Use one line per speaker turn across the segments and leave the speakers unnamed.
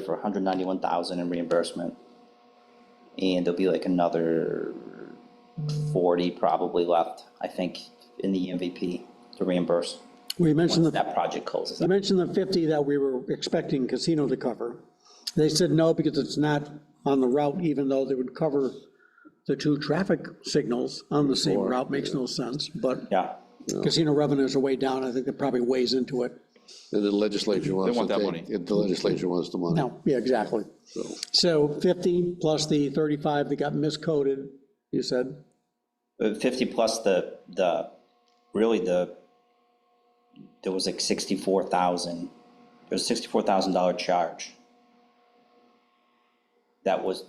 for hundred ninety-one thousand in reimbursement. And there'll be like another forty probably left, I think, in the E MVP to reimburse
We mentioned
once
the,
that project closes.
we mentioned the 50 that we were expecting casino to cover. They said no, because it's not on the route, even though they would cover the two traffic signals on the same route, makes no sense, but
Yeah,
casino revenues are way down, I think that probably weighs into it.
And the legislature wants to
want
take.
that money.
if The legislature wants the money.
No, yeah, exactly. So 50 plus the 35 that got miscoded, you said?
Uh, fifty plus the, the, really the, there was like sixty-four thousand, there was sixty-four thousand dollar charge. That was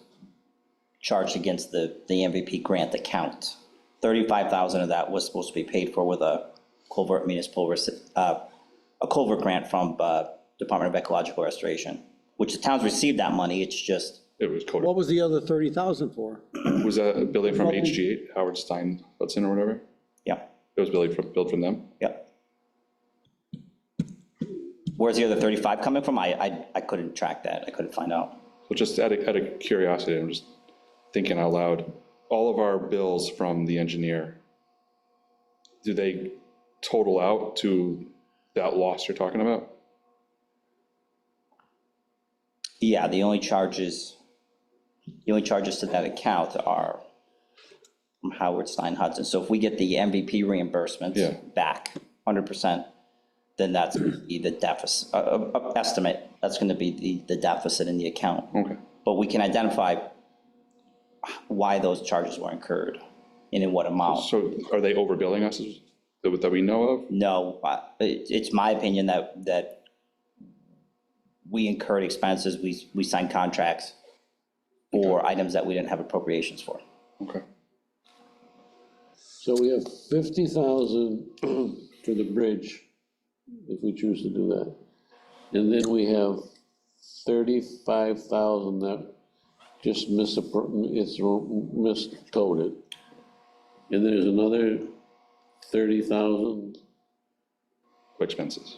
charged against the, the MVP grant account. Thirty-five thousand of that was supposed to be paid for with a culvert municipal, rece- uh, a culvert grant from, uh, Department of Ecological Restoration, which the towns received that money, it's just,
It was
What
coded,
was the other 30,000 for?
was that a building from HG8, Howard Stein Hudson or whatever?
yeah.
It was built from, built from them?
Yep. Where's the other 35 coming from? I, I, I couldn't track that. I couldn't find out.
Well, just out of, out of curiosity, I'm just thinking out loud, all of our bills from the engineer, do they total out to that loss you're talking about?
Yeah, the only charges, the only charges to that account are from Howard Stein Hudson. So if we get the MVP
Yeah.
reimbursements back 100%, then that's gonna be the deficit, uh, uh, uh, estimate. That's going to be the, the deficit in the account.
Okay,
But we can identify why those charges were incurred and in what amount.
so are they overbilling us that that we know of?
No, I- it, it's my opinion that, that we incurred expenses, we, we signed contracts for items that we didn't have appropriations for.
Okay.
So we have 50,000 for the bridge, if we choose to do that. And then we have 35,000 that just misappro, it's wrong- miscoded. And there's another 30,000,
For Expenses.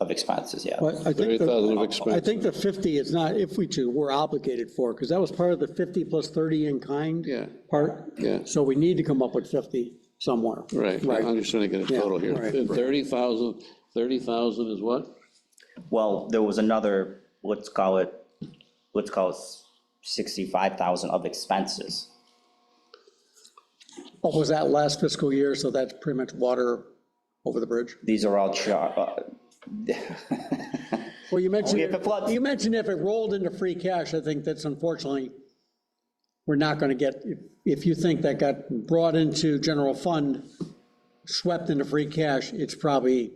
Of expenses, yeah.
But I think,
30,000 of
the- I
expense.
think the 50 is not, if we do, we're obligated for, because that was part of the 50 plus 30 in kind.
Yeah.
Part.
Yeah.
So we need to come up with 50 somewhere.
Right, I'm
Right.
just trying to get a
Yeah,
total here.
right.
And 30,000, 30,000 is what?
Well, there was another, let's call it, let's call it 65,000 of expenses.
What was that last fiscal year? So that's pretty much water over the bridge.
These are all char, uh,
Well, you mentioned,
if it floods.
you mentioned if it rolled into free cash, I think that's unfortunately, we're not going to get, if- if you think that got brought into general fund, swept into free cash, it's probably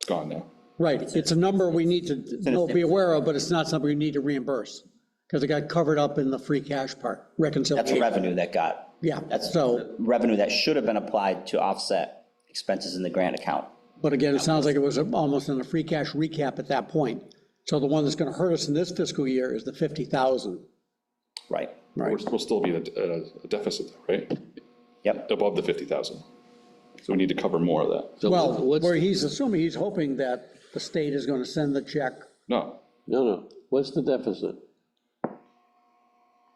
It's gone now.
Right, it's a number we need to
in a
know, be
zip.
aware of, but it's not something we need to reimburse, because it got covered up in the free cash part,
that's
reconciliation.
revenue that got,
Yeah,
that's
so,
revenue that should have been applied to offset expenses in the grant account.
but again, it sounds like it was almost in a free cash recap at that point. So the one that's gonna hurt us in this fiscal year is the 50,000.
Right,
We're- We'll still be in a- a deficit, right?
yep.
Above the 50,000. So we need to cover more of that.
So
Well,
what's
where
the-
he's assuming, he's hoping that the state is gonna send the check,
No,
No, no, what's the deficit?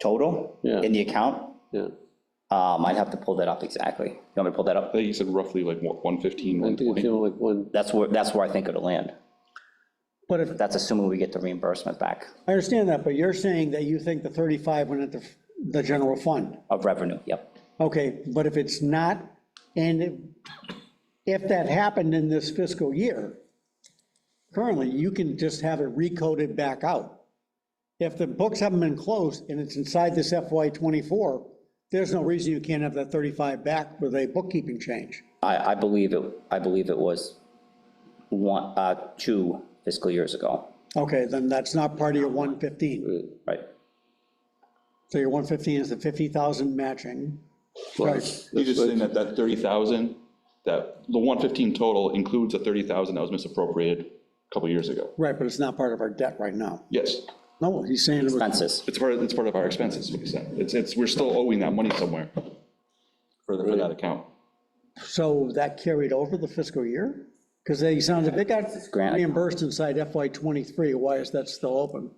Total
Yeah.
in the account,
Yeah,
Um, I'd have to pull that up exactly. You want me to pull that
I
up?
think you said roughly like what, 115,
I think it's
120?
only like one,
That's where, that's where I think it'll land.
but if,
That's assuming we get the reimbursement back
I understand that, but you're saying that you think the 35 went into the general fund.
of revenue, yep.
Okay, but if it's not, and if- if that happened in this fiscal year, currently, you can just have it recoded back out. If the books haven't been closed and it's inside this FY '24, there's no reason you can't have that 35 back with a bookkeeping change.
I, I believe it, I believe it was one, uh, two fiscal years ago,
Okay, then that's not part of your 115.
right?
So your 115 is the 50,000 matching. Right.
You're just saying that that 30,000, that the 115 total includes the 30,000 that was misappropriated a couple years ago.
Right, but it's not part of our debt right now.
Yes,
No, he's saying it was
Expenses,
it's part, of it's part of our expenses, like you said. It's, it's, we're still owing that money somewhere for the- for that account.
So that carried over the fiscal year? Because they sounded, they got
grant.
reimbursed inside FY '23, why is that still open?